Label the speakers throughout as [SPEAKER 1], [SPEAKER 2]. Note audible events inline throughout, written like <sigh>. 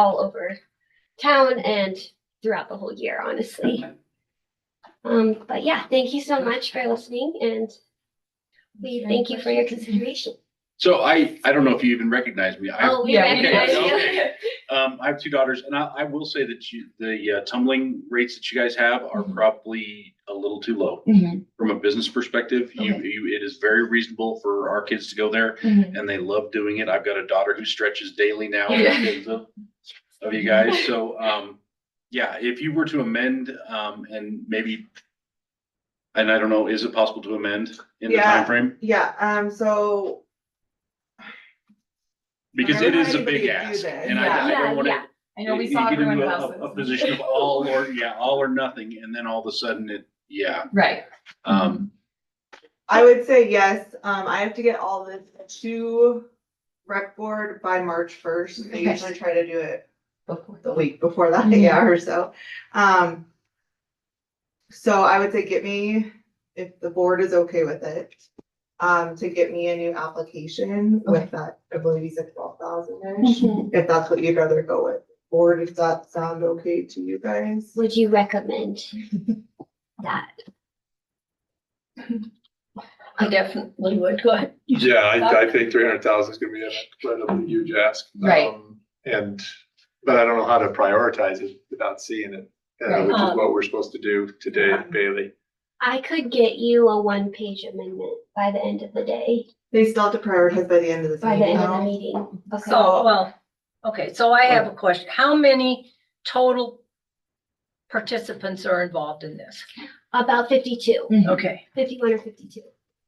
[SPEAKER 1] all over town and throughout the whole year, honestly. Um, but yeah, thank you so much for listening and we thank you for your consideration.
[SPEAKER 2] So I, I don't know if you even recognize me. I,
[SPEAKER 1] Oh, we
[SPEAKER 3] Yeah, we
[SPEAKER 1] recognize
[SPEAKER 2] did.
[SPEAKER 1] you.
[SPEAKER 2] <laughs> Okay. um, I have two daughters and I, I will say that you, the uh, tumbling rates that you guys have are
[SPEAKER 4] Mm-hmm.
[SPEAKER 3] Mhm.
[SPEAKER 2] probably a little too low.
[SPEAKER 3] Mhm.
[SPEAKER 2] From a business perspective, you,
[SPEAKER 3] Okay.
[SPEAKER 2] you, it is very reasonable for our kids to go there
[SPEAKER 3] Mhm.
[SPEAKER 2] and they love doing it. I've got a daughter who stretches daily now. with
[SPEAKER 3] Yeah.
[SPEAKER 2] kids Of of you guys. So, um, yeah, if you were to amend, um, and maybe, and I don't know, is it possible to amend in the
[SPEAKER 4] Yeah.
[SPEAKER 2] timeframe?
[SPEAKER 4] Yeah, um, so
[SPEAKER 2] Because
[SPEAKER 4] I
[SPEAKER 2] it
[SPEAKER 4] don't
[SPEAKER 2] is
[SPEAKER 4] know
[SPEAKER 2] a big
[SPEAKER 4] anybody to do
[SPEAKER 2] ask
[SPEAKER 4] this.
[SPEAKER 2] and I, I
[SPEAKER 1] Yeah,
[SPEAKER 2] don't want to
[SPEAKER 1] yeah.
[SPEAKER 3] I know we
[SPEAKER 2] you
[SPEAKER 3] saw
[SPEAKER 2] get into
[SPEAKER 3] everyone
[SPEAKER 2] a-
[SPEAKER 3] else's.
[SPEAKER 2] A a position of all or, yeah, all or nothing, and then all of a sudden it, yeah,
[SPEAKER 3] <laughs> Right.
[SPEAKER 2] um,
[SPEAKER 4] I would say yes, um, I have to get all this to rec board by March first. I
[SPEAKER 3] Okay.
[SPEAKER 4] usually try to do it
[SPEAKER 3] Before
[SPEAKER 4] the week before that,
[SPEAKER 1] Mm-hmm.
[SPEAKER 4] <laughs> yeah, or so. Um. So I would say get me, if the board is okay with it, um, to get me a new application
[SPEAKER 3] Okay.
[SPEAKER 4] with that, I believe he's at twelve thousand-ish.
[SPEAKER 3] Mm-hmm.
[SPEAKER 1] Mm-hmm.
[SPEAKER 4] If that's what you'd rather go with, or does that sound okay to you guys?
[SPEAKER 1] Would you
[SPEAKER 2] <laughs>
[SPEAKER 1] recommend that?
[SPEAKER 5] I definitely would, <laughs> go ahead.
[SPEAKER 6] Yeah, I, I think three hundred thousand is gonna be an incredibly huge ask.
[SPEAKER 3] Right.
[SPEAKER 6] Um, And, but I don't know how to prioritize it without seeing it, uh,
[SPEAKER 3] Right.
[SPEAKER 6] which is
[SPEAKER 5] Um,
[SPEAKER 6] what we're supposed to do today, at Bailey.
[SPEAKER 1] I could get you a one-page amendment by the end of the day,
[SPEAKER 4] They still have to prioritize by the end of this
[SPEAKER 1] by the
[SPEAKER 4] meeting.
[SPEAKER 1] end of the meeting. Okay.
[SPEAKER 5] So, well, okay, so I have a question. How many total participants are involved in this?
[SPEAKER 1] About 52,
[SPEAKER 3] Mm-hmm.
[SPEAKER 5] Okay,
[SPEAKER 1] 51 or fifty-two.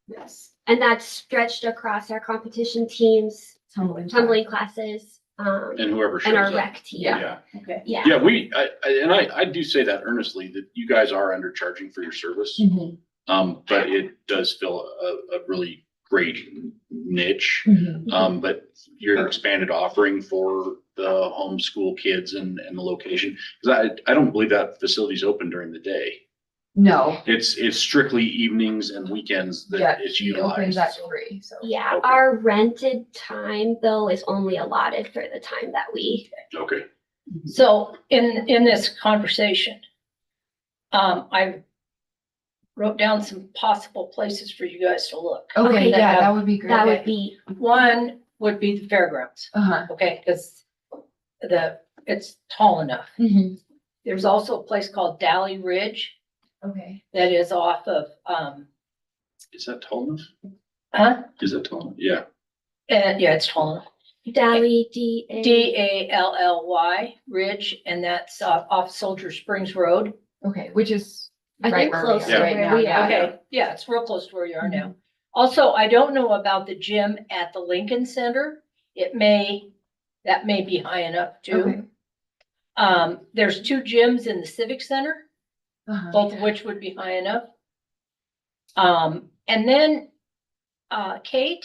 [SPEAKER 3] Yes.
[SPEAKER 1] And that's stretched across our competition teams,
[SPEAKER 3] Tumbling.
[SPEAKER 1] tumbling classes, um,
[SPEAKER 2] and whoever
[SPEAKER 1] and
[SPEAKER 2] shows
[SPEAKER 1] our
[SPEAKER 2] up.
[SPEAKER 1] rec team.
[SPEAKER 2] Yeah,
[SPEAKER 5] okay.
[SPEAKER 1] Yeah.
[SPEAKER 2] yeah, we, I, I- and I, I do say that earnestly, that you guys are undercharging for your service.
[SPEAKER 3] Mhm.
[SPEAKER 2] Um, but it does fill a, a really great niche.
[SPEAKER 3] Mhm.
[SPEAKER 2] Um, but your expanded offering for the homeschool kids and, and the location, because I, I don't believe that facility's open during the day.
[SPEAKER 3] No,
[SPEAKER 2] It's, it's strictly evenings and weekends
[SPEAKER 3] Yeah,
[SPEAKER 2] that it's
[SPEAKER 3] it opens
[SPEAKER 2] utilized.
[SPEAKER 3] at three, so.
[SPEAKER 1] Yeah,
[SPEAKER 2] Okay.
[SPEAKER 1] our rented time though is only allotted for the time that we,
[SPEAKER 2] Okay,
[SPEAKER 5] So in, in this conversation, um, I wrote down some possible places for you guys to look.
[SPEAKER 3] Okay,
[SPEAKER 1] Okay,
[SPEAKER 3] yeah, that would be great.
[SPEAKER 1] that would
[SPEAKER 5] Okay.
[SPEAKER 1] be,
[SPEAKER 5] One would be the fairgrounds,
[SPEAKER 3] Uh-huh.
[SPEAKER 5] okay, because the, it's tall enough.
[SPEAKER 3] Mhm.
[SPEAKER 5] There's also a place called Dally Ridge
[SPEAKER 3] Okay.
[SPEAKER 5] that is off of, um,
[SPEAKER 2] is that tall enough?
[SPEAKER 5] huh?
[SPEAKER 2] Is that tall? enough? Yeah,
[SPEAKER 5] And Eh, yeah, it's Tolna.
[SPEAKER 1] Dally D. A-
[SPEAKER 5] D A L L Y Ridge, and that's uh, off Soldier Springs Road.
[SPEAKER 3] Okay, which is
[SPEAKER 1] I
[SPEAKER 3] right
[SPEAKER 1] think
[SPEAKER 3] where
[SPEAKER 1] close
[SPEAKER 3] we
[SPEAKER 1] to
[SPEAKER 3] are right
[SPEAKER 1] where
[SPEAKER 3] now.
[SPEAKER 1] we
[SPEAKER 3] yeah.
[SPEAKER 1] are.
[SPEAKER 5] Okay, yeah, it's real close to where you are now. Also, I don't know about the gym at the Lincoln Center. It may, that may be high enough
[SPEAKER 3] Okay.
[SPEAKER 5] too. Um, there's two gyms in the Civic Center,
[SPEAKER 3] Uh-huh.
[SPEAKER 5] both of which would be high enough. Um, and then, uh, Kate,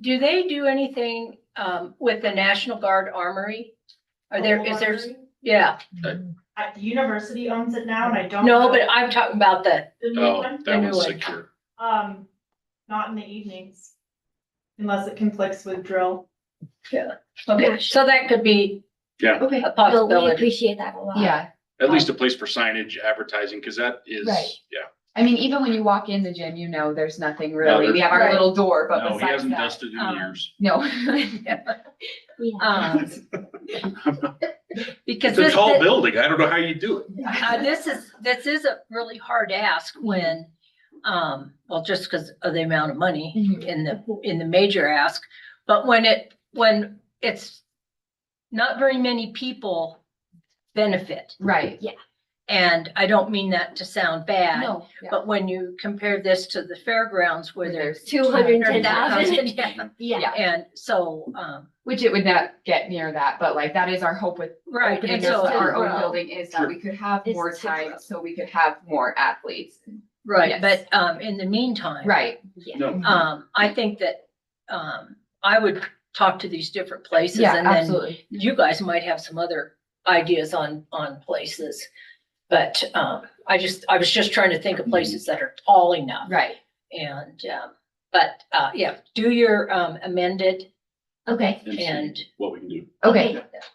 [SPEAKER 5] do they do anything, um, with the National Guard Armory? Are there, is there, yeah,
[SPEAKER 3] Mm-hmm.
[SPEAKER 7] Uh, the university owns it now and I don't.
[SPEAKER 5] no,
[SPEAKER 7] know
[SPEAKER 5] but I'm talking about the,
[SPEAKER 7] The new
[SPEAKER 2] oh,
[SPEAKER 7] one,
[SPEAKER 2] that
[SPEAKER 5] knew
[SPEAKER 2] one's
[SPEAKER 5] it.
[SPEAKER 2] secure.
[SPEAKER 7] um, not in the evenings. Unless it conflicts with drill.
[SPEAKER 5] okay,
[SPEAKER 1] Gosh.
[SPEAKER 5] so that could be
[SPEAKER 3] Okay,
[SPEAKER 5] a
[SPEAKER 1] No, we
[SPEAKER 5] possibility.
[SPEAKER 1] appreciate that a lot.
[SPEAKER 3] yeah.
[SPEAKER 2] At least a place for signage, advertising, because that is,
[SPEAKER 3] Right.
[SPEAKER 2] yeah.
[SPEAKER 3] I mean, even when you walk in the gym, you know, there's nothing
[SPEAKER 2] there-
[SPEAKER 3] really. We have our
[SPEAKER 5] Right.
[SPEAKER 3] little door, but
[SPEAKER 2] No, he
[SPEAKER 3] besides
[SPEAKER 2] hasn't
[SPEAKER 3] that,
[SPEAKER 2] dusted in
[SPEAKER 5] um,
[SPEAKER 2] years.
[SPEAKER 3] no. <laughs>
[SPEAKER 1] Yeah.
[SPEAKER 5] Um, Because
[SPEAKER 2] It's a
[SPEAKER 5] this,
[SPEAKER 2] tall
[SPEAKER 5] thi-
[SPEAKER 2] building. I don't know how you do it.
[SPEAKER 5] uh, this is, this is a really hard ask when, um, well, just because of the amount of money.
[SPEAKER 3] Mhm.
[SPEAKER 5] in the, in the major ask, but when it, when it's not very many people benefit,
[SPEAKER 3] Right.
[SPEAKER 5] and I don't mean that to sound bad,
[SPEAKER 3] No. yeah.
[SPEAKER 5] but when you compare this to the fairgrounds where there's
[SPEAKER 1] Two hundred and ten
[SPEAKER 5] 210,000,
[SPEAKER 1] thousand,
[SPEAKER 5] <laughs> yeah,
[SPEAKER 1] <laughs> yeah.
[SPEAKER 3] Yeah.
[SPEAKER 5] and so, um,
[SPEAKER 3] Which it would not get near that, but like that is our hope with
[SPEAKER 5] right,
[SPEAKER 3] opening
[SPEAKER 5] and
[SPEAKER 3] up
[SPEAKER 1] it's-
[SPEAKER 5] so,
[SPEAKER 3] our
[SPEAKER 1] Well,
[SPEAKER 3] own building is that
[SPEAKER 2] sure.
[SPEAKER 3] we could have
[SPEAKER 1] It's
[SPEAKER 3] more
[SPEAKER 1] to grow.
[SPEAKER 3] time, so we could have more athletes.
[SPEAKER 5] right,
[SPEAKER 3] Yes.
[SPEAKER 5] but, um, in the meantime.
[SPEAKER 3] Right.
[SPEAKER 1] Yeah.
[SPEAKER 2] No,
[SPEAKER 5] Um, I think that, um, I would talk to these different places
[SPEAKER 3] Yeah,
[SPEAKER 5] and then
[SPEAKER 3] absolutely.
[SPEAKER 5] you guys might have some other ideas on, on places. But, um, I just, I was just trying to think of places that are tall enough
[SPEAKER 3] Right.
[SPEAKER 5] and, um, but, uh, yeah, do your, um, amended
[SPEAKER 1] Okay,
[SPEAKER 2] and see
[SPEAKER 5] and,
[SPEAKER 2] What we can do.
[SPEAKER 3] Okay.